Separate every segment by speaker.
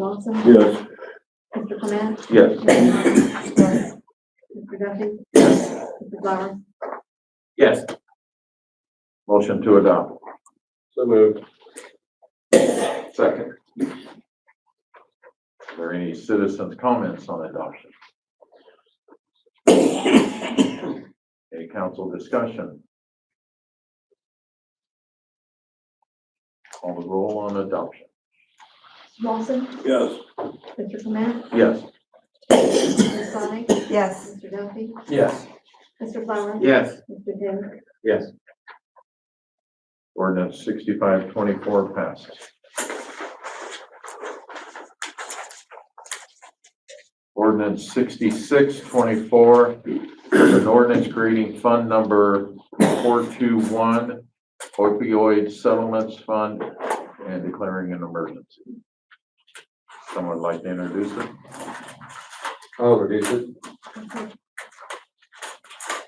Speaker 1: Lawson?
Speaker 2: Yes.
Speaker 1: Mr. Clement?
Speaker 2: Yes.
Speaker 1: Mr. Price? Mr. Duffy? Mr. Flowers?
Speaker 2: Yes. Motion to adopt.
Speaker 3: So moved.
Speaker 2: Second. Are there any citizens' comments on adoption? Any council discussion? Call the roll on adoption.
Speaker 1: Lawson?
Speaker 3: Yes.
Speaker 1: Mr. Clement?
Speaker 2: Yes.
Speaker 1: Mr. Sonic?
Speaker 4: yes,
Speaker 1: Mr. Duffy?
Speaker 3: Yes.
Speaker 1: Mr. Flowers?
Speaker 2: Yes.
Speaker 1: Mr. Taylor?
Speaker 2: Yes. Ordinance sixty-five twenty-four passes. Ordinance sixty-six twenty-four, an ordinance creating fund number four-two-one opioid settlements fund and declaring an emergency. Someone like to introduce it?
Speaker 3: I'll reduce it.
Speaker 1: Mm-hmm.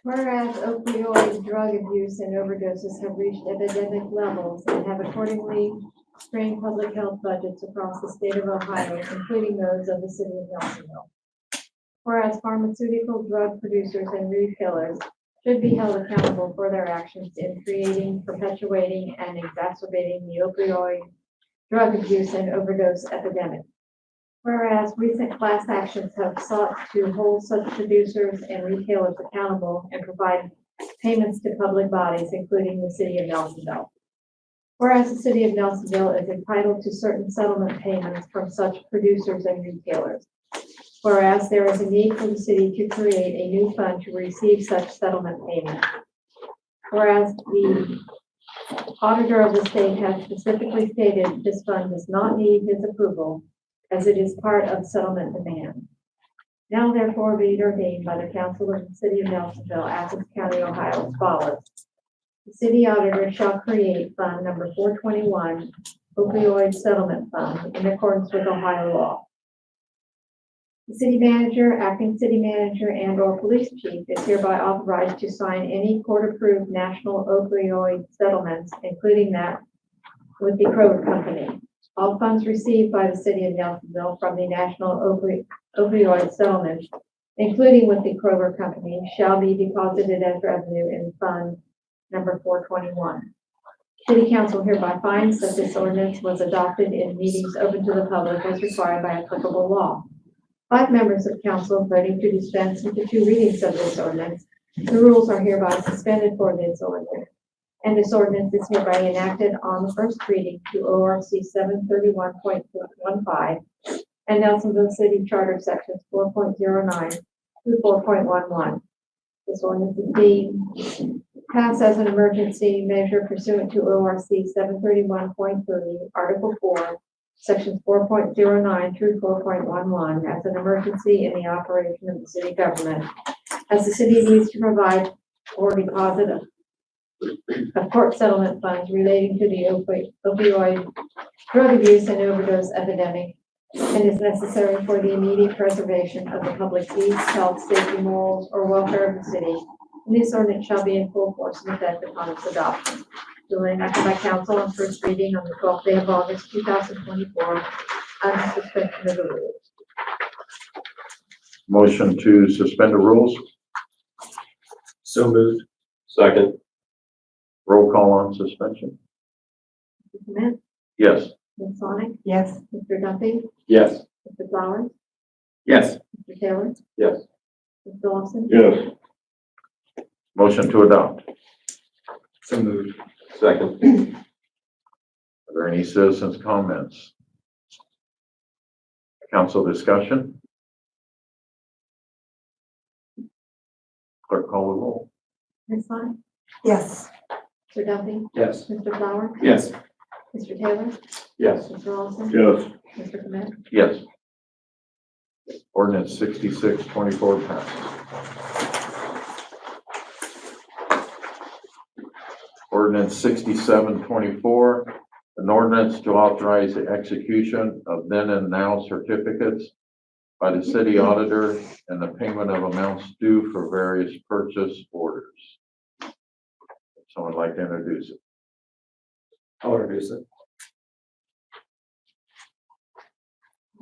Speaker 1: Whereas opioid drug abuse and overdoses have reached epidemic levels and have accordingly strained public health budgets across the state of Ohio, including those of the city of Nelsonville. Whereas pharmaceutical drug producers and retailers should be held accountable for their actions in creating, perpetuating, and exacerbating the opioid drug abuse and overdose epidemic. Whereas recent class actions have sought to hold such producers and retailers accountable and provide payments to public bodies, including the city of Nelsonville. Whereas the city of Nelsonville is entitled to certain settlement payments from such producers and retailers. Whereas there is a need for the city to create a new fund to receive such settlement payments. Whereas the auditor of the state has specifically stated this fund does not need his approval as it is part of settlement demand. Now therefore be it ordained by the council of the city of Nelsonville, Athens County, Ohio as follows. The city auditor shall create fund number four twenty-one opioid settlement fund in accordance with Ohio law. The city manager, acting city manager, and or police chief is hereby authorized to sign any court-approved national opioid settlements, including that with the Kroger Company. All funds received by the city of Nelsonville from the National Opi- Opioid Settlement, including with the Kroger Company, shall be deposited as revenue in Fund Number 421. City Council hereby finds that this ordinance was adopted in meetings open to the public as required by applicable law. Five members of council voting to dispense with the two readings of this ordinance. The rules are hereby suspended for this ordinance. And this ordinance is hereby enacted on the first reading to O R C seven thirty-one point one five and Nelsonville City Charter Sections four point zero nine through four point one one. This ordinance is being passed as an emergency measure pursuant to O R C seven thirty-one point thirty, Article four, Sections four point zero nine through four point one one, as an emergency in the operation of the city government, as the city needs to provide or deposit a of court settlement funds relating to the opi- opioid drug abuse and overdose epidemic and is necessary for the immediate preservation of the public peace, health, safety, morals, or welfare of the city. And this ordinance shall be in full force and effect upon its adoption. Duly enacted by council on first reading on the twelfth day of August, two thousand twenty-four, under suspension of the rules.
Speaker 2: Motion to suspend the rules?
Speaker 3: So moved. Second.
Speaker 2: Roll call on suspension?
Speaker 1: Mr. Clement,
Speaker 2: Yes.
Speaker 1: Ms. Sonic,
Speaker 4: yes,
Speaker 1: Mr. Duffy,
Speaker 3: Yes.
Speaker 1: Mr. Flowers,
Speaker 3: Yes.
Speaker 1: Mr. Taylor,
Speaker 3: Yes.
Speaker 1: Mr. Lawson,
Speaker 2: Yes. Motion to adopt.
Speaker 3: So moved. Second.
Speaker 2: Are there any citizens' comments? Council discussion? Clerk call the roll.
Speaker 1: Ms. Sonic,
Speaker 4: yes,
Speaker 1: Mr. Duffy,
Speaker 3: Yes.
Speaker 1: Mr. Flower,
Speaker 3: Yes.
Speaker 1: Mr. Taylor,
Speaker 3: Yes.
Speaker 1: Mr. Lawson,
Speaker 2: Yes.
Speaker 1: Mr. Clement.
Speaker 2: Yes. Ordinance sixty-six twenty-four passes. Ordinance sixty-seven twenty-four, an ordinance to authorize the execution of then and now certificates by the city auditor and the payment of amounts due for various purchase orders. Someone like to introduce it?
Speaker 3: I'll reduce it.